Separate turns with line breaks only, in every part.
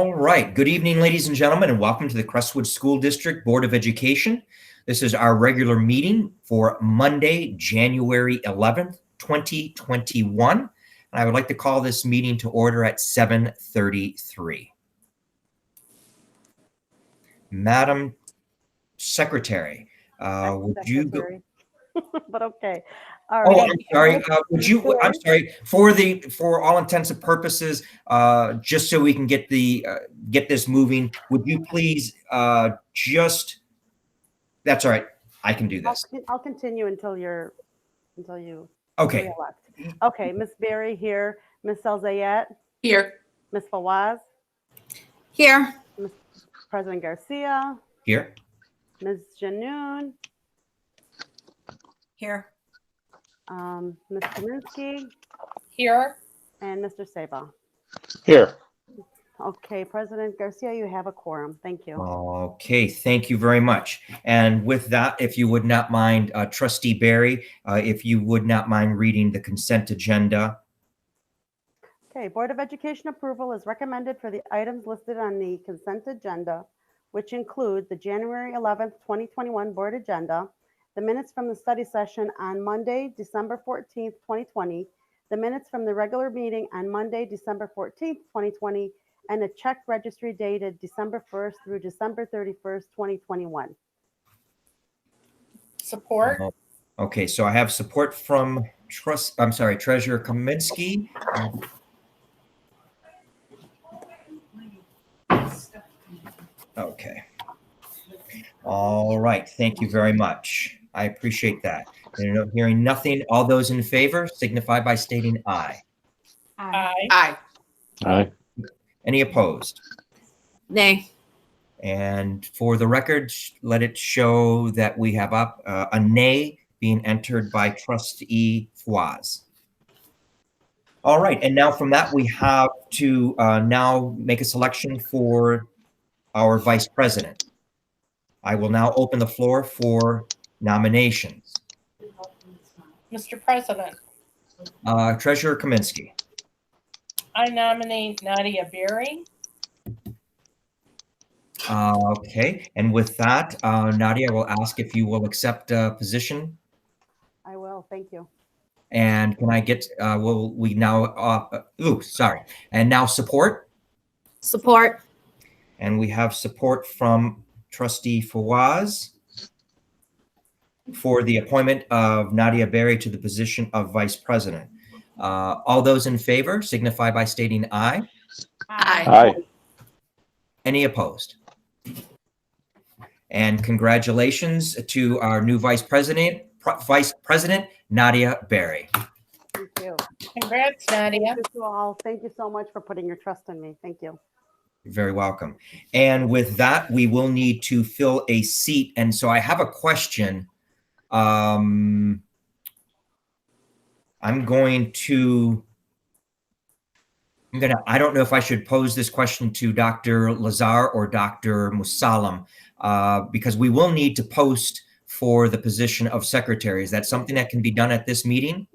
right. Good evening, ladies and gentlemen, and welcome to the Crestwood School District Board of Education. This is our regular meeting for Monday, January 11th, 2021. And I would like to call this meeting to order at 7:33. Madam Secretary, uh,
I'm
would you go?
secretary. But okay. All
Oh,
right.
I'm sorry. Uh, would you, I'm
Sure.
sorry, for the, for all intents and purposes, uh, just so we can get the, uh, get this moving, would you please, uh, just, that's all right. I can do
I'll
this.
con- I'll continue until you're, until you
Okay.
re-elect. Okay, Ms. Berry here, Ms. Elzayat,
Here.
Ms. Fawaz,
Here.
President Garcia,
Here.
Ms. Janoon,
Here.
um, Ms. Kaminsky,
Here.
and Mr. Sabah.
Here,
Okay, President Garcia, you have a quorum. Thank you.
Okay. Thank you very much. And with that, if you would not mind, uh, trustee Barry, uh, if you would not mind reading the consent agenda.
Okay, Board of Education approval is recommended for the items listed on the consent agenda, which include the January 11th, 2021 board agenda, the minutes from the study session on Monday, December 14th, 2020, the minutes from the regular meeting on Monday, December 14th, 2020, and a check registry dated December 1st through December 31st, 2021.
Support.
Okay. So I have support from trust, I'm sorry, treasurer Kaminsky. Okay. All right. Thank you very much. I appreciate that. There are no- Hearing nothing, all those in favor signify by stating aye.
Aye.
aye,
Any opposed?
Nay.
And for the record, sh- let it show that we have up uh, a nay being entered by trustee Fawaz. All right, and now from that, we have to uh, now make a selection for our vice president. I will now open the floor for nominations.
Mr. President,
Uh, Treasurer Kaminsky.
I nominate Nadia Berry.
Uh, Okay, and with that, uh, Nadia will ask if you will accept a position
I will, thank you.
And can I get, uh, will we now, uh, ooh, sorry. And now support.
Support.
And we have support from trustee Fawaz for the appointment of Nadia Berry to the position of vice president. Uh, all those in favor signify by stating aye.
Aye.
aye,
Any opposed? And congratulations to our new vice president, Pro- vice president Nadia Berry.
Thank you.
Congrats, Nadia.
Thank you all. Thank you so much for putting your trust in me. Thank you.
You're Very welcome. And with that, we will need to fill a seat. And so I have a question. Um, I'm going to, I'm gonna, I don't know if I should pose this question to Dr. Lazar or Dr. Musalam, uh, because we will need to post for the position of secretary. Is that something that can be done at this meeting?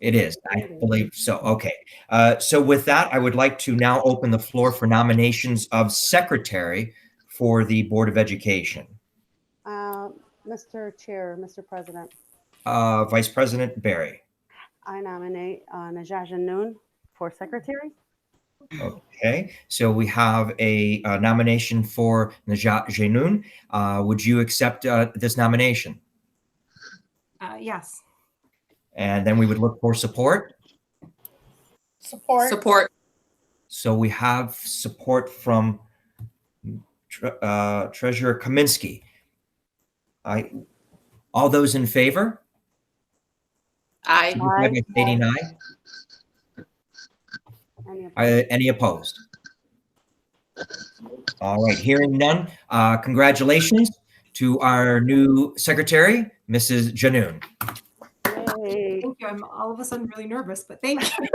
It is, I believe so. Okay. Uh, so with that, I would like to now open the floor for nominations of secretary for the Board of Education.
Uh, Mr. Chair, Mr. President,
Uh, Vice President Barry.
I nominate uh, Najah Janoon for secretary.
Okay, so we have a, uh nomination for Najat Jenoun. Uh, would you accept uh, this nomination?
Uh, yes.
And then we would look for support.
Support.
Support.
So we have support from Tre- uh, Treasurer Kaminsky. I, all those in favor?
Aye.
Signify
Aye.
by Stating aye.
Any opposed?
Uh, Any opposed? All right, hearing none, uh, congratulations to our new secretary, Mrs. Janoon.
Yay.
Thank you. I'm all of a sudden really nervous, but thank you.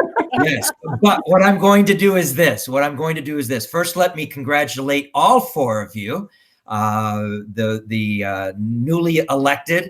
Yes, but what I'm going to do is this, what I'm going to do is this. First, let me congratulate all four of you, uh, the, the uh, newly elected